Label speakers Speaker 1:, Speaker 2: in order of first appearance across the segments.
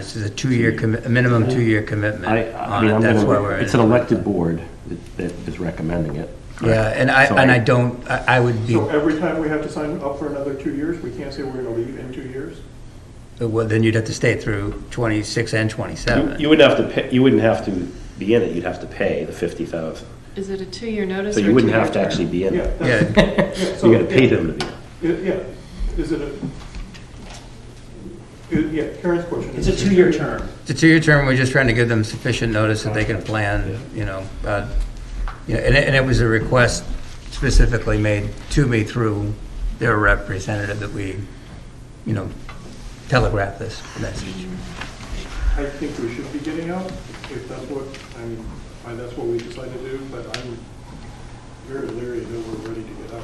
Speaker 1: This is a two-year, commi- a minimum two-year commitment
Speaker 2: I, I
Speaker 1: on
Speaker 2: mean,
Speaker 1: it,
Speaker 2: I'm
Speaker 1: that's why we're
Speaker 2: gonna,
Speaker 1: in
Speaker 2: it's an
Speaker 1: it.
Speaker 2: elected board that- that is recommending it.
Speaker 1: Yeah, and I,
Speaker 2: So
Speaker 1: and
Speaker 2: I-
Speaker 1: I don't, I I would be,
Speaker 3: So every time we have to sign up for another two years, we can't say we're gonna leave in two years?
Speaker 1: well, then you'd have to stay through 26 and 27.
Speaker 4: You wouldn't have to, pay- you wouldn't have to be in it, you'd have to pay the 50,000.
Speaker 5: Is it a two-year notice?
Speaker 4: So
Speaker 5: or
Speaker 4: you
Speaker 5: a
Speaker 4: wouldn't
Speaker 5: two-year
Speaker 4: have to
Speaker 5: term?
Speaker 4: actually be in
Speaker 3: Yeah.
Speaker 4: it.
Speaker 3: that's-
Speaker 1: Yeah,
Speaker 3: yeah, so-
Speaker 4: You gotta pay them to be in it.
Speaker 3: Yeah, yeah. is it a, i- yeah, Karen's question.
Speaker 6: It's
Speaker 3: is-
Speaker 6: a two-year term.
Speaker 1: it's a two-year term, we're just trying to give them sufficient notice that they can plan, you know, uh, you know, and it, and it was a request specifically made to me through their representative that we, you know, telegraph this message.
Speaker 3: I think we should be getting out, if that's what, I mean, I- that's what we decide to do, but I'm very leery that we're ready to get out.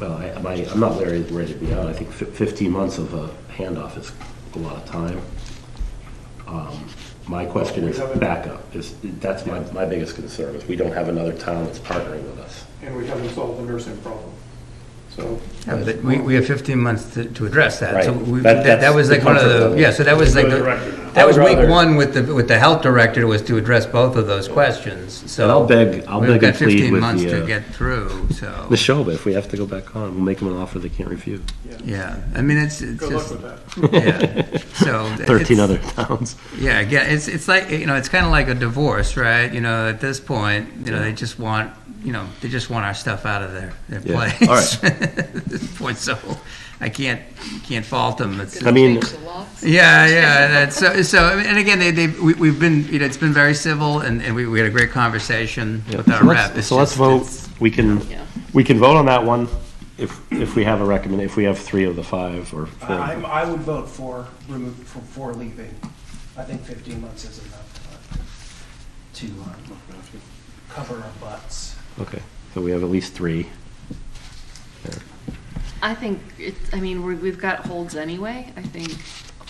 Speaker 4: Well, I, I- I'm not very ready to be out. I think fif- 15 months of a handoff is a lot of time. Um, My question
Speaker 3: We
Speaker 4: is
Speaker 3: haven't-
Speaker 4: backup, is, that's my, my biggest concern, is we don't have another town that's partnering with us.
Speaker 3: And we haven't solved the nursing problem, so.
Speaker 1: Yeah, but we, we have 15 months to, to address that. So
Speaker 4: Right.
Speaker 1: we,
Speaker 4: That-
Speaker 1: that, that
Speaker 4: that's
Speaker 1: was
Speaker 4: the
Speaker 1: like one of
Speaker 4: comfort
Speaker 1: the,
Speaker 4: level.
Speaker 1: yeah, so that was like,
Speaker 7: the
Speaker 1: the-
Speaker 7: director now.
Speaker 1: that
Speaker 4: I
Speaker 1: was
Speaker 4: would
Speaker 1: week
Speaker 4: rather-
Speaker 1: one with the, with the health director was to address both of those questions, so.
Speaker 4: And I'll beg- I'll
Speaker 1: We've
Speaker 4: beg and
Speaker 1: got
Speaker 4: plead
Speaker 1: 15
Speaker 4: with
Speaker 1: months
Speaker 4: the,
Speaker 1: to
Speaker 4: uh,
Speaker 1: get through, so,
Speaker 4: Ms. Schoba, if we have to go back on, we'll make them an offer they can't refuse.
Speaker 1: yeah. I mean, it's, it's
Speaker 3: Good luck
Speaker 1: just,
Speaker 3: with that.
Speaker 1: yeah. So. it's-
Speaker 4: 13 other towns.
Speaker 1: Yeah, again, it's, it's like, you know, it's kind of like a divorce, right? You know, at this point, you know, they just want, you know, they just want our stuff out of their, their
Speaker 4: Yeah.
Speaker 1: place.
Speaker 4: All right.
Speaker 1: At this point, so I can't, can't fault them. It's,
Speaker 4: I mean,
Speaker 1: Yeah, yeah. That's so. So, and again, they, they we, we've been, you know, it's been very civil, and, and we, we had a great conversation
Speaker 4: Yeah.
Speaker 1: with our
Speaker 4: So
Speaker 1: rep.
Speaker 4: let's,
Speaker 1: It's
Speaker 4: so let's
Speaker 1: just-
Speaker 4: vote,
Speaker 1: it's-
Speaker 4: we can,
Speaker 5: Yeah.
Speaker 4: we can vote on that one if, if we have a recommend, if we have three of the five or four.
Speaker 6: I, I'm- I would vote for remove, for, for leaving. I think fifteen months is enough uh, to um, cover our butts.
Speaker 4: Okay, so we have at least three.
Speaker 5: I think, it's, I mean, we're, we've got holds anyway. I think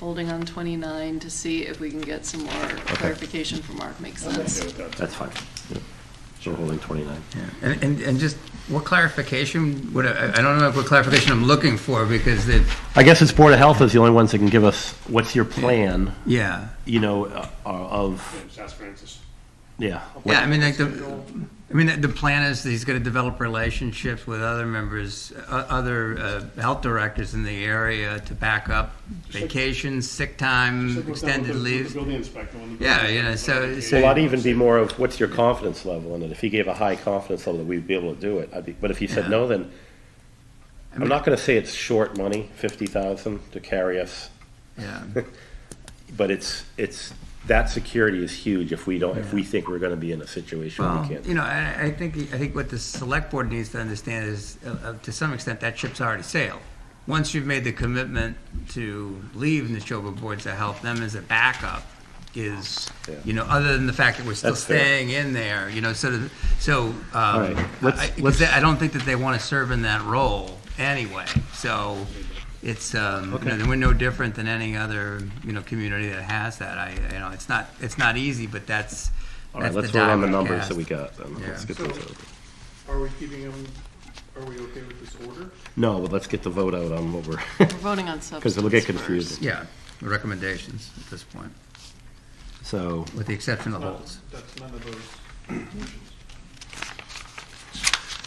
Speaker 5: holding on 29 to see if we can get some more clarification from Mark makes sense.
Speaker 4: That's fine. Yeah. So we're holding 29.
Speaker 1: yeah. And, and and just what clarification? What I, I don't know what clarification I'm looking for because it.
Speaker 4: I guess it's Board of Health is the only ones that can give us, what's your plan,
Speaker 1: Yeah.
Speaker 4: you know, uh, of,
Speaker 7: South Francis.
Speaker 4: yeah.
Speaker 1: Yeah. I mean, like the. I mean, the- the plan is that he's going to develop relationships with other members, uh, other uh, health directors in the area to back up vacations, sick
Speaker 7: Just
Speaker 1: time,
Speaker 7: like what's done with
Speaker 1: extended
Speaker 7: the- with
Speaker 1: leaves.
Speaker 7: The building inspector. when the
Speaker 1: Yeah,
Speaker 7: building
Speaker 1: you know,
Speaker 7: inspector
Speaker 1: so-
Speaker 7: came
Speaker 1: so-
Speaker 4: Well,
Speaker 7: in.
Speaker 4: that'd even be more of, what's your confidence level in it? If he gave a high confidence level that we'd be able to do it, I'd be, but if he
Speaker 1: Yeah.
Speaker 4: said no, then, I'm
Speaker 1: mean-
Speaker 4: not gonna say it's short money, 50,000 to carry us,
Speaker 1: Yeah.
Speaker 4: but it's, it's, that security is huge if we don't, if we think we're gonna be in a situation we
Speaker 1: Well,
Speaker 4: can't.
Speaker 1: you know, I, I think, I think what the select board needs to understand is, uh, uh, to some extent, that ship's already sailed. Once you've made the commitment to leave Neshoba Board to help them as a backup is,
Speaker 4: Yeah.
Speaker 1: you know, other than the fact that we're still
Speaker 4: That's fair.
Speaker 1: staying in there, you know, sort of, so, um,
Speaker 4: right,
Speaker 1: I,
Speaker 4: let's-
Speaker 1: I- 'cause
Speaker 4: let's-
Speaker 1: they- I don't think that they want to serve in that role anyway, so it's, um, you know, we're no different than any other, you know, community that has that. I, you know, it's not, it's not easy, but that's,
Speaker 4: All right,
Speaker 1: that's
Speaker 4: let's
Speaker 1: the
Speaker 4: vote on the
Speaker 1: die
Speaker 4: numbers
Speaker 1: cast.
Speaker 4: that we got, then.
Speaker 1: Yeah.
Speaker 4: Let's get
Speaker 3: So-
Speaker 4: those out.
Speaker 3: Are we keeping them, are we okay with this order?
Speaker 4: No, but let's get the vote out on what we're,
Speaker 5: We're voting on substance
Speaker 4: because it'll get
Speaker 5: first.
Speaker 4: confusing.
Speaker 1: Yeah, the recommendations at this point,
Speaker 4: So,
Speaker 1: with the exception of
Speaker 3: Not-
Speaker 1: holds.
Speaker 3: That's none of those.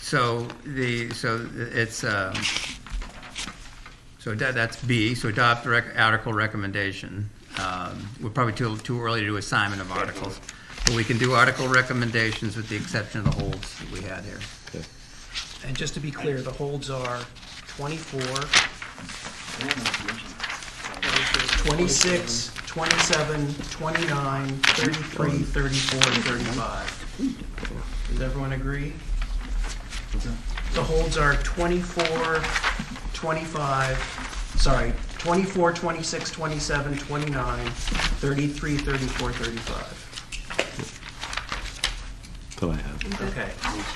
Speaker 1: So the, so it's, um, so that, that's B, so adopt rec- article recommendation. Um, We're probably too, too early to do assignment of articles, but we can do article recommendations with the exception of the holds that we had here.
Speaker 4: okay.
Speaker 6: And just to be clear, the holds are twenty-four, 26, 27, 29, 33, 34, and 35. Does everyone agree? The holds are 24, 25, sorry, 24, 26, 27, 29, 33, 34, 35.
Speaker 4: that's what I have.
Speaker 6: Okay,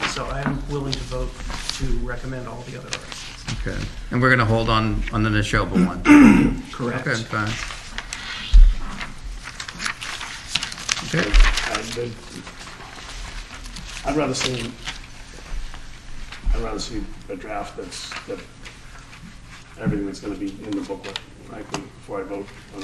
Speaker 6: so I'm willing to vote to recommend all the other articles.
Speaker 1: Okay. And we're gonna hold on, on the Neshoba one. Okay,
Speaker 6: Correct.
Speaker 1: fine. Okay,
Speaker 7: I'd been- I'd rather see, I'd rather see a draft that's, that, everything that's gonna be in the booklet, frankly, before I vote on